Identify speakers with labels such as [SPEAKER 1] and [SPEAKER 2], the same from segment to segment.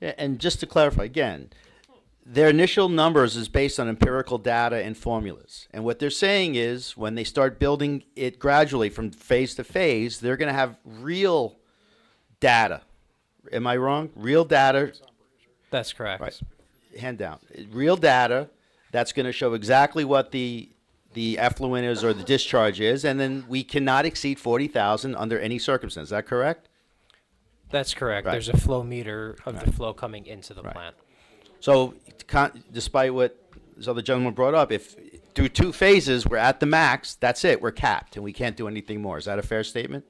[SPEAKER 1] Yeah, And just to clarify again, their initial numbers is based on empirical data and formulas. And what they're saying is when they start building it gradually from phase to phase, they're going to have real data. Am I wrong? Real data
[SPEAKER 2] That's correct.
[SPEAKER 1] Right. hand down. Real data that's going to show exactly what the the effluent is or the discharge is, and then we cannot exceed forty thousand under any circumstance. Is that correct?
[SPEAKER 2] That's correct.
[SPEAKER 1] Right.
[SPEAKER 2] There's a flow meter of the flow coming into the plant.
[SPEAKER 1] So, con- despite what this other gentleman brought up, if through two phases we're at the max, that's it. We're capped, and we can't do anything more. Is that a fair statement?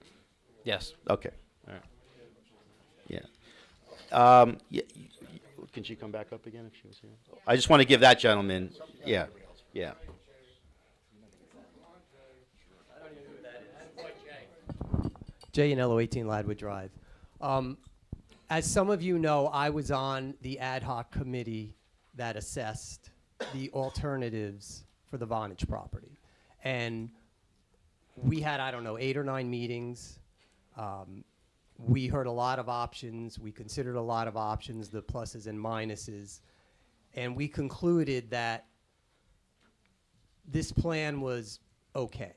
[SPEAKER 2] Yes.
[SPEAKER 1] Okay. All right. Yeah. Um, yeah. Can she come back up again if she was here? I just want to give that gentleman, yeah, yeah.
[SPEAKER 3] J and L 18 Ladwood Drive. Um, as some of you know, I was on the ad hoc committee that assessed the alternatives for the Vonage property. And we had, I don't know, eight or nine meetings. Um, we heard a lot of options. We considered a lot of options, the pluses and minuses. And we concluded that this plan was okay.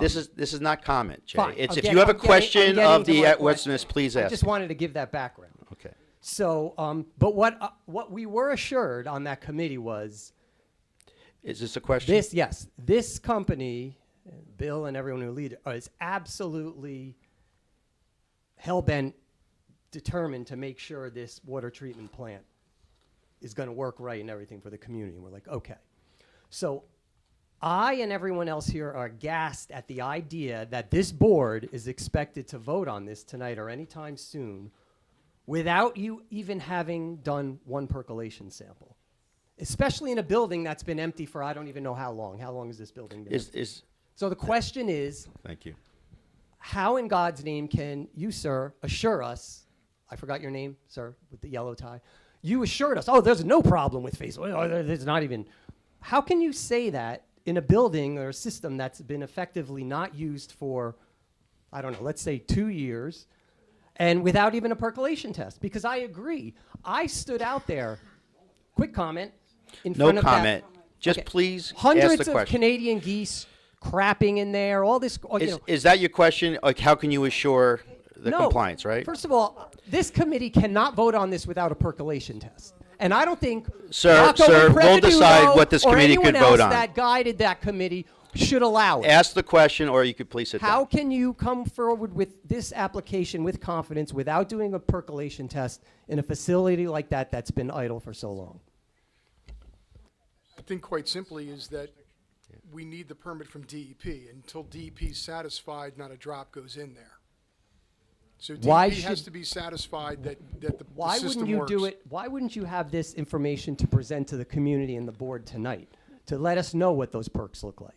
[SPEAKER 1] This is, this is not comment, Jay.
[SPEAKER 3] Um, Fine.
[SPEAKER 1] It's
[SPEAKER 3] I'm
[SPEAKER 1] if you
[SPEAKER 3] getting-
[SPEAKER 1] have a
[SPEAKER 3] I'm getting- I'm
[SPEAKER 1] question
[SPEAKER 3] getting
[SPEAKER 1] of
[SPEAKER 3] to
[SPEAKER 1] the
[SPEAKER 3] my
[SPEAKER 1] uh, what's
[SPEAKER 3] question.
[SPEAKER 1] this, please
[SPEAKER 3] I
[SPEAKER 1] ask.
[SPEAKER 3] just wanted to give that background.
[SPEAKER 1] Okay.
[SPEAKER 3] So, um, but what uh, what we were assured on that committee was
[SPEAKER 1] Is this a question?
[SPEAKER 3] this: yes, this company, Bill and everyone who lead it, is absolutely hell bent, determined to make sure this water treatment plant is going to work right and everything for the community. And we're like, okay. So, I and everyone else here are aghast at the idea that this board is expected to vote on this tonight or anytime soon without you even having done one percolation sample, especially in a building that's been empty for I don't even know how long. How long has this building been?
[SPEAKER 1] Is,
[SPEAKER 3] empty?
[SPEAKER 1] is,
[SPEAKER 3] so the question is,
[SPEAKER 1] thank you.
[SPEAKER 3] how in God's name can you, sir, assure us? I forgot your name, sir, with the yellow tie. You assured us, oh, there's no problem with phase. Oh, there- there's not even. How can you say that in a building or a system that's been effectively not used for, I don't know, let's say two years, and without even a percolation test? Because I agree. I stood out there. Quick comment. In
[SPEAKER 1] No
[SPEAKER 3] front of that-
[SPEAKER 1] comment. Just please ask the
[SPEAKER 3] Hundreds of
[SPEAKER 1] question.
[SPEAKER 3] Canadian geese crapping in there. All this. oh, you
[SPEAKER 1] Is,
[SPEAKER 3] know,
[SPEAKER 1] is that your question? Like, how can you assure the
[SPEAKER 3] no.
[SPEAKER 1] compliance, right?
[SPEAKER 3] First of all, this committee cannot vote on this without a percolation test. And I don't think
[SPEAKER 1] Sir-
[SPEAKER 3] Rocco
[SPEAKER 1] sir,
[SPEAKER 3] and
[SPEAKER 1] we'll decide
[SPEAKER 3] Prevenuto
[SPEAKER 1] what this
[SPEAKER 3] or
[SPEAKER 1] committee could
[SPEAKER 3] anyone
[SPEAKER 1] vote
[SPEAKER 3] else
[SPEAKER 1] on.
[SPEAKER 3] That guided that committee should allow it.
[SPEAKER 1] Ask the question, or you could please sit down.
[SPEAKER 3] How can you come forward with this application with confidence without doing a percolation test in a facility like that that's been idle for so long?
[SPEAKER 4] I think quite simply is that we need the permit from DEP. Until DEP's satisfied, not a drop goes in there. So
[SPEAKER 3] Why
[SPEAKER 4] DEP has
[SPEAKER 3] should-
[SPEAKER 4] to be satisfied that, that the- the
[SPEAKER 3] Why wouldn't
[SPEAKER 4] system
[SPEAKER 3] you
[SPEAKER 4] works.
[SPEAKER 3] do it? Why wouldn't you have this information to present to the community and the board tonight to let us know what those perks look like?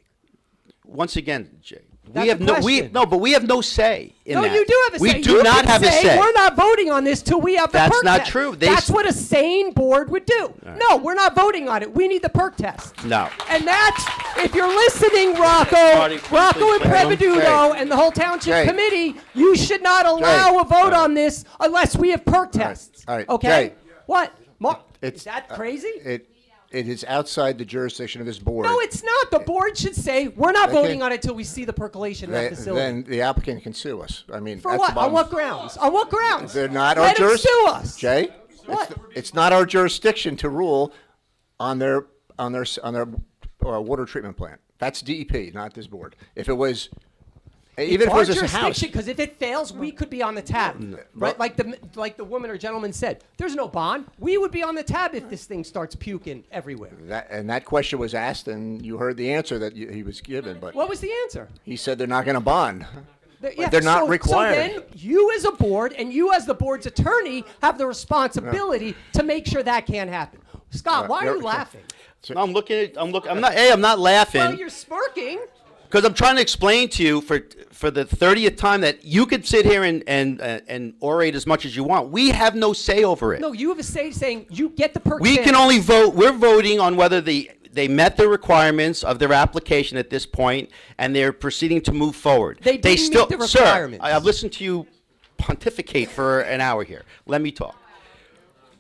[SPEAKER 1] once again, Jay,
[SPEAKER 3] That's
[SPEAKER 1] we have
[SPEAKER 3] a
[SPEAKER 1] no we
[SPEAKER 3] question.
[SPEAKER 1] no, but we have no say in
[SPEAKER 3] No,
[SPEAKER 1] that.
[SPEAKER 3] you do have a
[SPEAKER 1] we
[SPEAKER 3] say.
[SPEAKER 1] We do
[SPEAKER 3] You
[SPEAKER 1] not
[SPEAKER 3] can
[SPEAKER 1] have
[SPEAKER 3] say,
[SPEAKER 1] a say.
[SPEAKER 3] We're not voting on this till we have the
[SPEAKER 1] That's
[SPEAKER 3] perk
[SPEAKER 1] not
[SPEAKER 3] test.
[SPEAKER 1] true. They
[SPEAKER 3] That's
[SPEAKER 1] s-
[SPEAKER 3] what a sane board would do. No, we're not voting on it. We need the perk test.
[SPEAKER 1] No.
[SPEAKER 3] And that's if you're listening, Rocco,
[SPEAKER 1] Marty, please,
[SPEAKER 3] Rocco and
[SPEAKER 1] please, Adam.
[SPEAKER 3] Prevenuto
[SPEAKER 1] Jay.
[SPEAKER 3] and the whole township
[SPEAKER 1] Jay.
[SPEAKER 3] committee, you should not allow
[SPEAKER 1] Jay.
[SPEAKER 3] a vote on this unless we have perk tests.
[SPEAKER 5] All right,
[SPEAKER 3] Okay.
[SPEAKER 5] Jay.
[SPEAKER 3] What? Mark,
[SPEAKER 5] It's-
[SPEAKER 3] is that crazy?
[SPEAKER 5] It, it is outside the jurisdiction of this board.
[SPEAKER 3] no, it's not. The board should say we're not
[SPEAKER 5] Okay.
[SPEAKER 3] voting on it till we see the percolation in
[SPEAKER 5] Then-
[SPEAKER 3] that facility.
[SPEAKER 5] Then the applicant can sue us. I mean,
[SPEAKER 3] For
[SPEAKER 5] that's
[SPEAKER 3] what?
[SPEAKER 5] the
[SPEAKER 3] On
[SPEAKER 5] bottom-
[SPEAKER 3] what grounds? On what grounds?
[SPEAKER 5] They're not our
[SPEAKER 3] Let them
[SPEAKER 5] jurisdiction.
[SPEAKER 3] sue us.
[SPEAKER 5] Jay? it's
[SPEAKER 3] What?
[SPEAKER 5] th- It's not our jurisdiction to rule on their, on their, s- on their uh, water treatment plant. That's DEP, not this board. If it was, even if it
[SPEAKER 3] Our
[SPEAKER 5] was just a house. Mm.
[SPEAKER 3] jurisdiction, because if it fails, we could be on the tab. Right? Like the like the woman or gentleman said, there's no bond. We would be on the tab if this thing starts puking everywhere.
[SPEAKER 5] That, and that question was asked and you heard the answer that you- he was given, but
[SPEAKER 3] What was the answer?
[SPEAKER 5] he said they're not going to bond.
[SPEAKER 3] Th-
[SPEAKER 5] But they're not
[SPEAKER 3] so,
[SPEAKER 5] required.
[SPEAKER 3] So then you as a board and you as the board's attorney have the responsibility to make sure that can't happen. Scott, why are
[SPEAKER 5] Uh, you're-
[SPEAKER 3] you laughing?
[SPEAKER 1] No, I'm looking at. I'm looking. I'm not. Hey, I'm not
[SPEAKER 3] Well,
[SPEAKER 1] laughing
[SPEAKER 3] you're smirking.
[SPEAKER 1] because I'm trying to explain to you for for the thirtieth time that you could sit here and and uh, and orate as much as you want. We have no say over it.
[SPEAKER 3] No, you have a say saying you get the perk.
[SPEAKER 1] we can
[SPEAKER 3] sample.
[SPEAKER 1] only vote. We're voting on whether the they met the requirements of their application at this point, and they're proceeding to move forward.
[SPEAKER 3] They didn't meet
[SPEAKER 1] still,
[SPEAKER 3] the
[SPEAKER 1] sir,
[SPEAKER 3] requirements.
[SPEAKER 1] I- I've listened to you pontificate for an hour here. Let me talk.